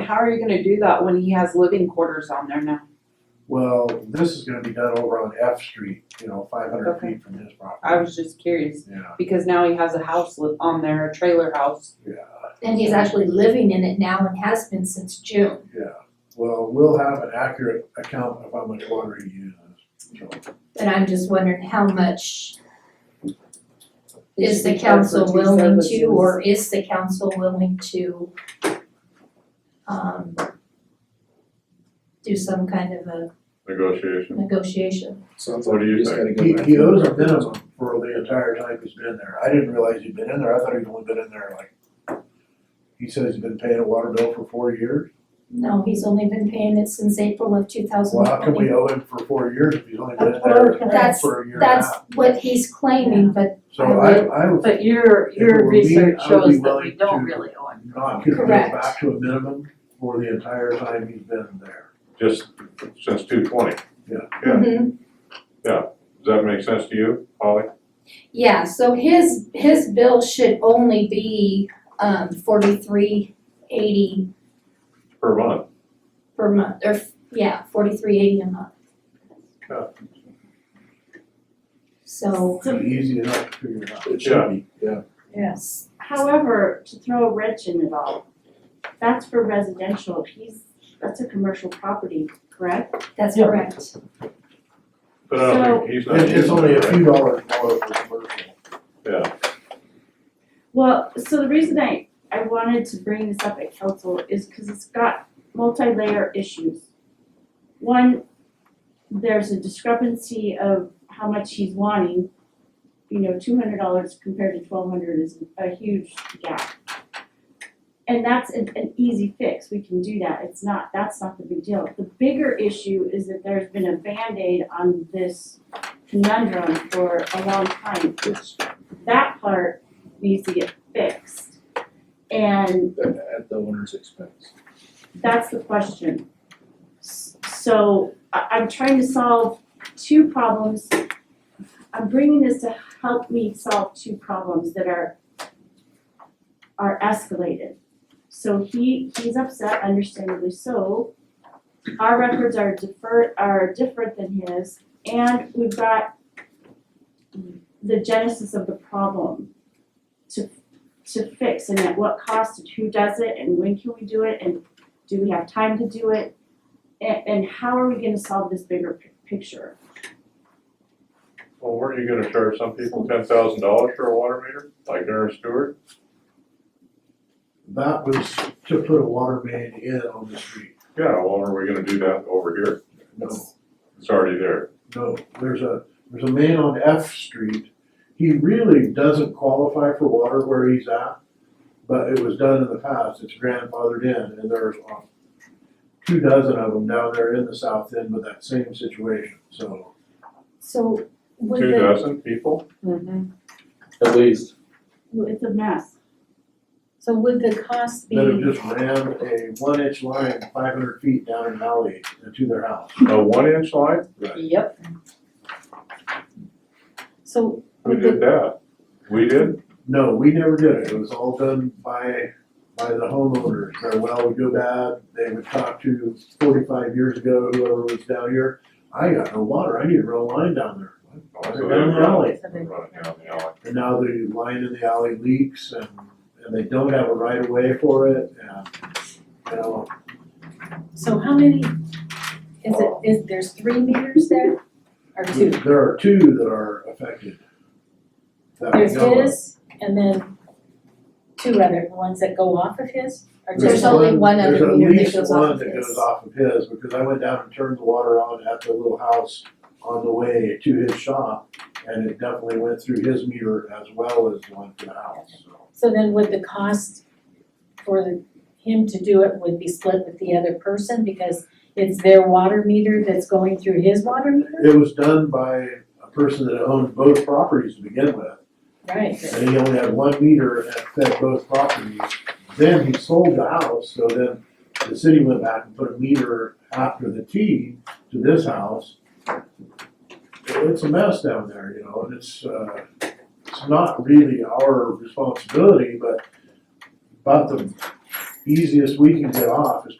how are you gonna do that when he has living quarters on there now? Well, this is gonna be done over on F Street, you know, five hundred Okay. feet from his property. I was just curious, Yeah, because now he has a house li- on there, a trailer house. yeah, And he's actually living in it now and has been since June. yeah. Well, we'll have an accurate account of how much water he uses, so. But I'm just wondering how much is the He should be charged council for two willing to, services. or is the council willing to um do some kind of a negotiation. negotiation? Sounds What like do you you just think? gotta go He, back. he to the owes a record. minimum for the entire time he's been there. I didn't realize he'd been in there. I thought he'd only been in there like, he says he's been paying a water bill for four years. No, he's only been paying it since April of two thousand Well, how can twenty. we owe him for four years if he's only been in there That's- for a year and a That's half? what he's claiming, but So I, I would But your, If it your were me, research I would be shows that we willing don't to- really owe him. not give him Correct. back to a minimum for the entire time he's been there. just since two twenty. Yeah. mhm. Does that make sense to you, Holly? Yeah, so his, his bill should only be, um, forty-three eighty Per month? per month, or, f- yeah, forty-three eighty a month. Yeah. So, It'd be easy enough to figure it out. It should be, yeah. Yes, however, to throw a wrench in it all, that's for residential, he's, that's a commercial property, correct? that's correct. But I don't think he's not. It- It's using only a it, right? few dollars more for commercial. Yeah, Well, so the reason I, I wanted to bring this up at council is because it's got multi-layer issues. One, there's a discrepancy of how much he's wanting, you know, two hundred dollars compared to twelve hundred is a huge gap. And that's an, an easy fix, we can do that, it's not, that's not the big deal. The bigger issue is that there's been a Band-Aid on this conundrum for a long time, which that part needs to get fixed. And At, at the owner's expense. that's the question. S- So I I'm trying to solve two problems. I'm bringing this to help me solve two problems that are are escalated. So he he's upset, understandably so. Our records are defer are different than his and we've got the genesis of the problem to to fix and at what cost and who does it and when can we do it and do we have time to do it? And, and how are we gonna solve this bigger pic- picture? well, weren't you gonna charge some people ten thousand dollars for a water meter, like Ernest Stewart? That was to put a water main in on the street. Yeah, well, are we gonna do that over here? No. It's already there. No, there's a, there's a man on F Street, he really doesn't qualify for water where he's at, but it was done in the past, it's grandfathered in, and there's uh, two dozen of them down there in the south end with that same situation, so. So would Two the, dozen people? Mm-hmm. At least. It's a mess. so would the cost Then it be, just ran a one inch line five hundred feet down an alley to their house. A one inch line? Yep, so Who would the, did that? We did? No, we never did it, it was all done by, by the homeowners, their well would go bad, they would talk to forty-five years ago, whoever was down here, I got no water, I need to run a line down there. Oh, I so said, they Down the run- alley, they run it down the alley. and now the line in the alley leaks and, and they don't have a right of way for it, and, you know, so how many, is it, is, there's three meters there? Or two? there are two that are affected. That we There's know of. his and then two other, the ones that go off of his? Or There's just, only one other meter that There's at goes least off one of that his. goes off of his, because I went down and turned the water on at the little house on the way to his shop, and it definitely went through his meter as well as the one to the house, so. so then would the cost for the- him to do it would be split with the other person because it's their water meter that's going through his water meter? It was done by a person that owned both properties to begin with, Right, and he only had one meter and fed both properties. Then he sold the house, so then the city went back and put a meter after the T to this house. It's a mess down there, you know, and it's, uh, it's not really our responsibility, but about the easiest we can get off is